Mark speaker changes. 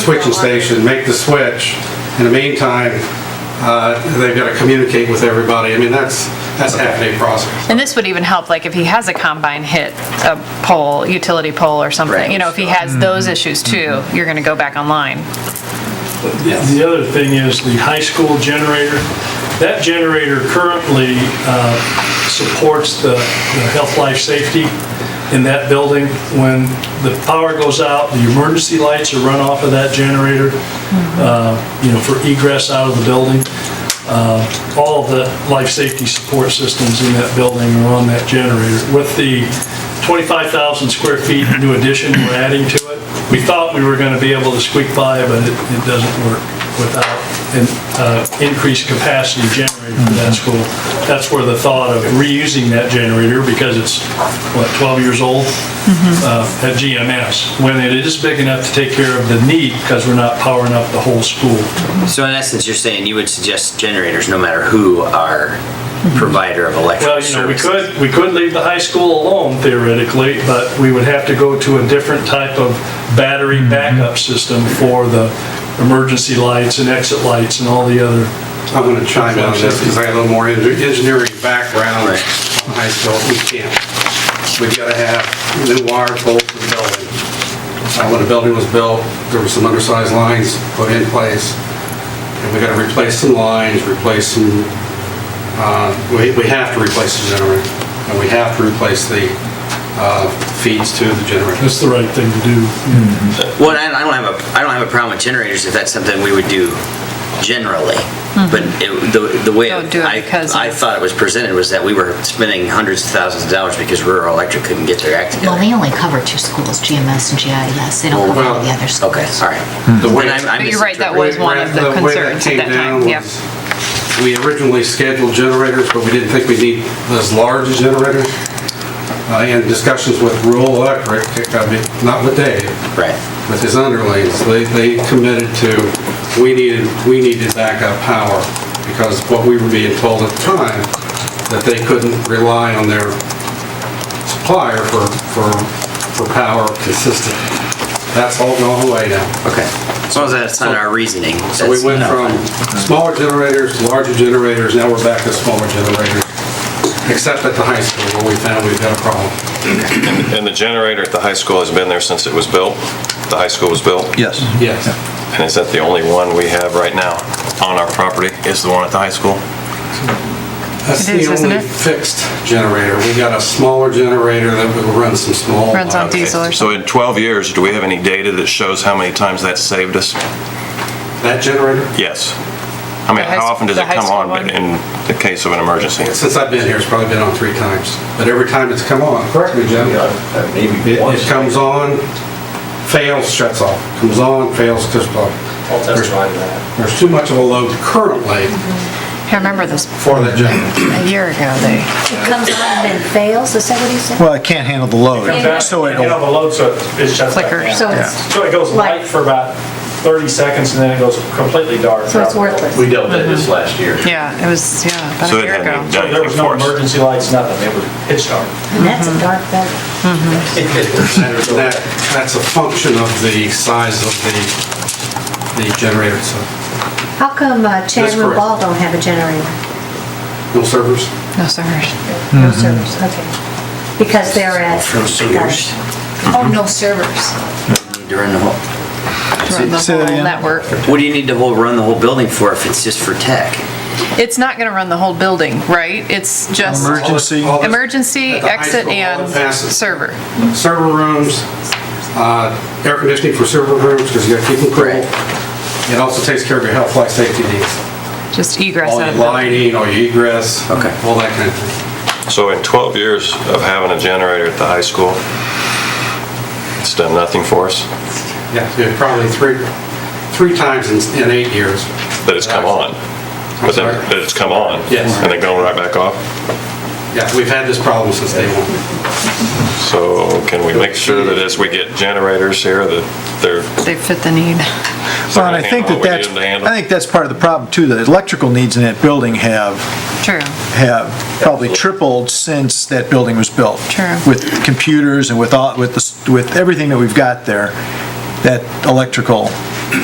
Speaker 1: switching station, make the switch. In the meantime, uh, they've got to communicate with everybody. I mean, that's, that's a half-day process.
Speaker 2: And this would even help, like, if he has a combine hit a pole, utility pole or something, you know, if he has
Speaker 1: Mm-hmm.
Speaker 2: those issues too,
Speaker 3: Mm-hmm.
Speaker 2: you're gonna go back online.
Speaker 4: The other thing is the high school generator. That generator currently uh, supports the the health, life, safety in that building. When the power goes out, the emergency lights are run off of that generator, uh, you know, for egress out of the building. Uh, All of the life safety support systems in that building are on that generator. With the 25,000 square feet new addition we're adding to it, we thought we were going to be able to squeak by, but it it doesn't work without an uh, increased capacity generator for that school. That's where the thought of reusing that generator, because it's, what, 12 years old, uh, at GMS, when it is big enough to take care of the need, because we're not powering up the whole school.
Speaker 5: So in essence, you're saying you would suggest generators, no matter who our provider of
Speaker 4: Well,
Speaker 5: electric
Speaker 4: you know, we
Speaker 5: service.
Speaker 4: could, we could leave the high school alone theoretically, but we would have to go to a different type of battery backup system for the emergency lights and exit lights and all the other.
Speaker 1: I'm going to chime in on this because I got a little more engi- engineering background
Speaker 5: Right.
Speaker 1: on high school. We can't. We've got to have new wire pulled to the building. Uh, When the building was built, there were some undersized lines put in place. And we got to replace some lines, replace some, uh, we we have to replace the generator. And we have to replace the uh, feeds to the generator.
Speaker 4: That's the right thing to do.
Speaker 5: Well, I I don't have a, I don't have a problem with generators if that's something we would do generally. But it- the, the way
Speaker 2: Mm-hmm. Don't do it
Speaker 5: I,
Speaker 2: because
Speaker 5: I
Speaker 2: of-
Speaker 5: thought it was presented was that we were spending hundreds of thousands of dollars because rural electric couldn't get their act
Speaker 6: Well,
Speaker 5: together.
Speaker 6: they only cover two schools, GMS and GIS. They don't cover all the other schools.
Speaker 5: Okay, all right.
Speaker 1: The way-
Speaker 5: Then I- I
Speaker 2: But you're right, that was
Speaker 5: misinterpreted.
Speaker 2: one of the
Speaker 1: way that
Speaker 2: concerns at
Speaker 1: came
Speaker 2: that time,
Speaker 1: down
Speaker 2: yeah.
Speaker 1: was We originally scheduled generators, but we didn't think we'd need as large a generator. Uh, In discussions with Rural Electric, I mean, not with Dave,
Speaker 5: Right.
Speaker 1: with his underlings, they, they committed to, we needed, we needed backup power because what we were being told at the time, that they couldn't rely on their supplier for, for, for power consistent. That's all gone away now.
Speaker 5: Okay. As long as that's not our reasoning.
Speaker 1: So we
Speaker 5: that's-
Speaker 1: went from smaller generators to larger generators, now we're back to smaller generators, except at the high school where we found we've got a problem.
Speaker 7: And the generator at the high school has been there since it was built? The high school was built?
Speaker 3: Yes.
Speaker 1: Yes.
Speaker 7: And is that the only one we have right now on our property, is the one at the high school?
Speaker 1: That's
Speaker 2: It is,
Speaker 1: the
Speaker 2: isn't
Speaker 1: only
Speaker 2: it?
Speaker 1: fixed generator. We got a smaller generator that will run some small.
Speaker 2: Runs on diesel or
Speaker 7: So in 12 years, do we have any data that shows how many times that saved us?
Speaker 1: That generator,
Speaker 7: Yes. I mean,
Speaker 2: The high
Speaker 7: how
Speaker 2: s-
Speaker 7: often does
Speaker 2: the
Speaker 7: it
Speaker 2: high
Speaker 7: come
Speaker 2: school
Speaker 7: on
Speaker 2: one?
Speaker 7: in the case of an emergency?
Speaker 1: since I've been here, it's probably been on three times, but every time it's come on, correct me, Jim? It- It comes on, fails, shuts off, comes on, fails, shuts off.
Speaker 8: I'll testify to that.
Speaker 1: There's too much of a load currently
Speaker 2: I remember this
Speaker 1: for that generator.
Speaker 2: a year ago, they.
Speaker 9: It comes on and then fails, is that what he said?
Speaker 3: Well, it can't handle the load, so
Speaker 8: You know,
Speaker 3: it'll,
Speaker 8: the load, so it shuts back
Speaker 2: Flickers.
Speaker 8: down.
Speaker 9: So Oh, it's,
Speaker 8: So it goes light for about 30 seconds and then it goes completely dark.
Speaker 9: so it's worthless.
Speaker 10: We dealt with this last year.
Speaker 2: Yeah, it was, yeah, about
Speaker 7: So
Speaker 2: a
Speaker 7: it
Speaker 2: year
Speaker 7: hadn't even
Speaker 2: ago.
Speaker 7: done
Speaker 8: There was
Speaker 7: anything
Speaker 8: no
Speaker 7: for us.
Speaker 8: emergency lights, nothing. It was pitch dark.
Speaker 9: And that's a dark vote.
Speaker 1: That, that's a function of the size of the, the generator, so,
Speaker 9: How come uh, Chandler
Speaker 1: correct.
Speaker 9: Ball don't have a generator?
Speaker 1: no servers?
Speaker 2: No, sorry.
Speaker 9: No servers, okay. Because they're at.
Speaker 5: No servers.
Speaker 9: Oh, no servers.
Speaker 5: During the whole,
Speaker 2: Run the
Speaker 3: Say that
Speaker 2: whole
Speaker 3: again?
Speaker 2: network.
Speaker 5: what do you need to whole, run the whole building for if it's just for tech?
Speaker 2: It's not gonna run the whole building, right? It's just
Speaker 3: emergency,
Speaker 1: All the-
Speaker 2: emergency,
Speaker 1: At the high
Speaker 2: exit,
Speaker 1: school, all
Speaker 2: and
Speaker 1: the passes.
Speaker 2: server.
Speaker 1: Server rooms, uh, air conditioning for server rooms, because you gotta keep them cool. It also takes care of your health, life, safety needs.
Speaker 2: Just egress
Speaker 1: All
Speaker 2: out
Speaker 1: your
Speaker 2: of the building.
Speaker 1: lighting, all your egress, all
Speaker 5: Okay.
Speaker 1: that kind of thing.
Speaker 7: So in 12 years of having a generator at the high school, it's done nothing for us,
Speaker 1: Yeah, yeah, probably three, three times in, in eight years.
Speaker 7: that it's come on? But then, that it's come on?
Speaker 1: Yes.
Speaker 7: And then going right back off?
Speaker 1: Yeah, we've had this problem since day one.
Speaker 7: So can we make sure that as we get generators here, that they're
Speaker 2: They fit the need.
Speaker 3: well, and I think that
Speaker 7: Handle what we
Speaker 3: that's,
Speaker 7: need them to handle.
Speaker 3: I think that's part of the problem too, the electrical needs in that building have,
Speaker 2: True.
Speaker 3: have probably tripled since that building was built.
Speaker 2: True.
Speaker 3: With computers and with all, with the, s- with everything that we've got there, that electrical